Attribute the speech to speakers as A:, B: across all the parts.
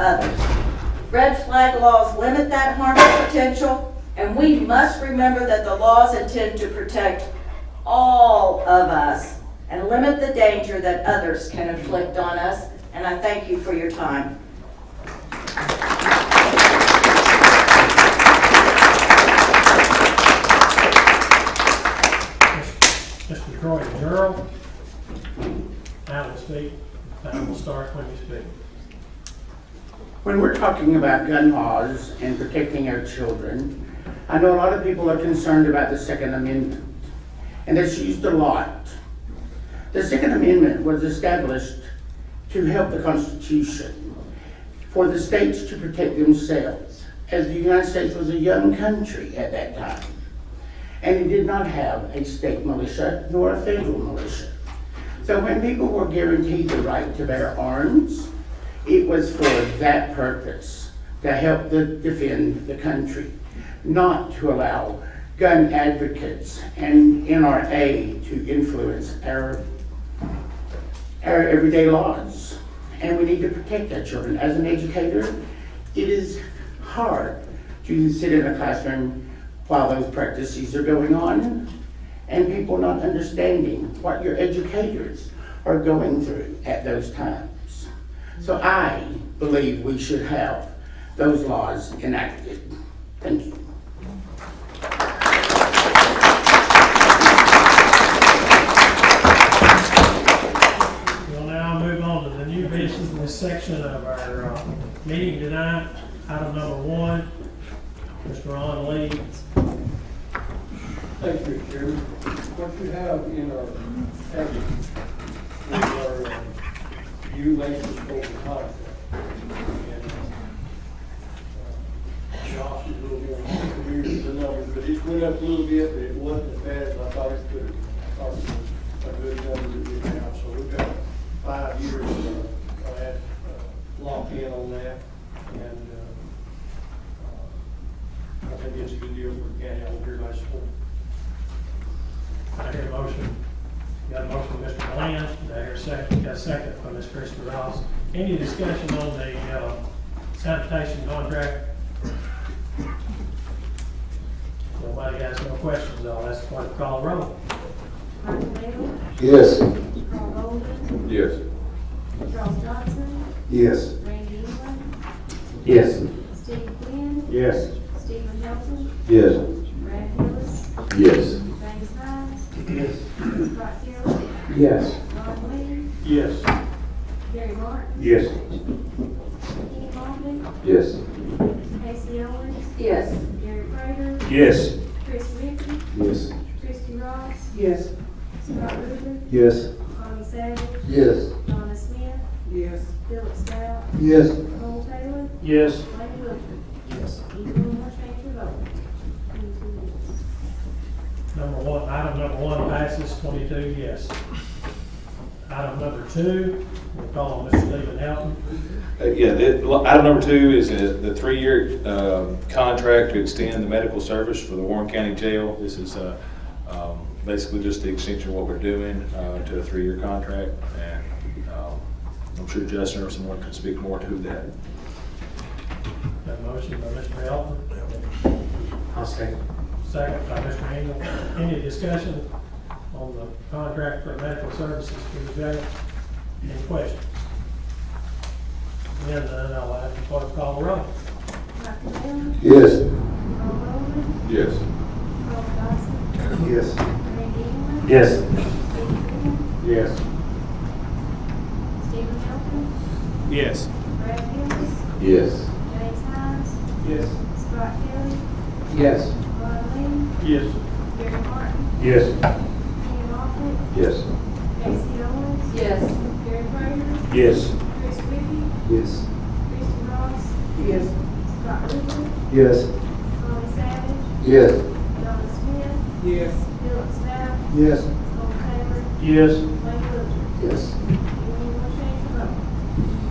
A: others. Red flag laws limit that harmful potential, and we must remember that the laws intend to protect all of us and limit the danger that others can inflict on us, and I thank you for your time.
B: Mr. Troy Durrell. I will speak. I will start when you speak.
C: When we're talking about gun laws and protecting our children, I know a lot of people are concerned about the Second Amendment, and that's used a lot. The Second Amendment was established to help the Constitution, for the states to protect themselves, as the United States was a young country at that time. And it did not have a state militia nor a federal militia. So when people were guaranteed the right to bear arms, it was for that purpose, to help the, defend the country, not to allow gun advocates and NRA to influence our, our everyday laws. And we need to protect our children. As an educator, it is hard to sit in a classroom while those practices are going on and people not understanding what your educators are going through at those times. So I believe we should have those laws enacted. Thank you.
B: We'll now move on to the new business section of our uh, meeting tonight. Item number one, Mr. Ron Lee.
D: Thank you, Chairman. What you have in our package is our uh, new license holder contract. And, uh, Josh is a little more familiar with the numbers, but it went up a little bit, but it wasn't as bad as I thought it could. I thought it was a good number that we have, so we've got five years uh, uh, uh, locked in on that. And uh, uh, Um, I think it's a good deal for the county over here, I support.
B: I hear a motion. Got a motion from Mr. Glenn. I hear a second, got a second from Ms. Krista Ross. Any discussion on the uh, sanitation contract? Nobody has no questions, I'll ask the clerk to call the roll.
E: Michael Bailey,
F: Yes.
E: Carl Bolden,
F: Yes.
E: Charles Johnson,
F: Yes.
E: Randy England,
F: Yes.
E: Steve Quinn,
F: Yes.
E: Stephen Hilton,
F: Yes.
E: Brad Hillis,
F: Yes.
E: James Hines,
F: Yes.
E: Scott Kelly,
F: Yes.
E: Ron
D: Yes.
E: Lee, Gary Martin,
F: Yes.
E: Kenny Moffitt,
F: Yes.
E: Casey Owens,
A: Yes.
E: Gary Prater,
F: Yes.
E: Chris Ricky,
F: Yes.
E: Christie Ross,
C: Yes.
E: Scott Rutherford,
F: Yes.
E: Tommy Savage,
F: Yes.
E: Donna Smith,
C: Yes.
E: Philip Stout,
F: Yes.
E: Cole Taylor,
F: Yes.
E: Lane Wilcher.
F: Yes.
E: Anyone want to change your vote? Twenty-two yes.
B: Number one, item number one passes twenty-two yes. Item number two, we'll call on Mr. Stephen Helton.
G: Uh, Yeah, it- well, item number two is uh, the three-year um, contract to extend the medical service for the Warren County Jail. This is uh, um, basically just the extension of what we're doing uh, to a three-year contract, and um, I'm sure Justin or someone can speak more to that.
B: Got a motion by Mr. Helton,
C: I'll stay.
B: second by Mr. Engel. Any discussion on the contract for medical services for the jail? Any questions? Then, uh, I'll ask the clerk to call the roll.
E: Michael Bailey,
F: Yes.
E: Carl Bolden,
F: Yes.
E: Carl Johnson,
F: Yes.
E: Randy England.
F: Yes.
E: Steve Quinn,
F: Yes.
E: Stephen Hilton,
G: Yes.
E: Brad Hillis,
F: Yes.
E: James Hines,
D: Yes.
E: Scott Kelly,
F: Yes.
E: Ron
D: Yes.
E: Lee, Gary Martin,
F: Yes.
E: Kenny Moffitt,
F: Yes.
E: Casey Owens,
A: Yes.
E: Gary Prater,
F: Yes.
E: Chris Reapy,
F: Yes.
E: Christie Ross,
C: Yes.
E: Scott Rutherford,
F: Yes.
E: Tommy Savage,
F: Yes.
E: Donna Smith,
C: Yes.
E: Philip Stout,
F: Yes.
E: Cole Taylor,
F: Yes.
E: Lane Wilcher.
F: Yes.
E: Anyone want to change your vote?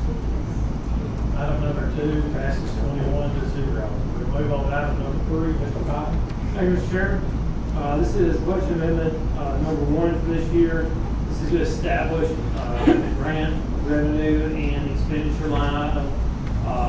E: Two yes.
B: Item number two passes twenty-one to zero. We move on to item number three, Mr. Cotton.
H: Thank you, Mr. Chair. Uh, This is budget amendment uh, number one for this year. This is to establish uh, grant revenue and expenditure line item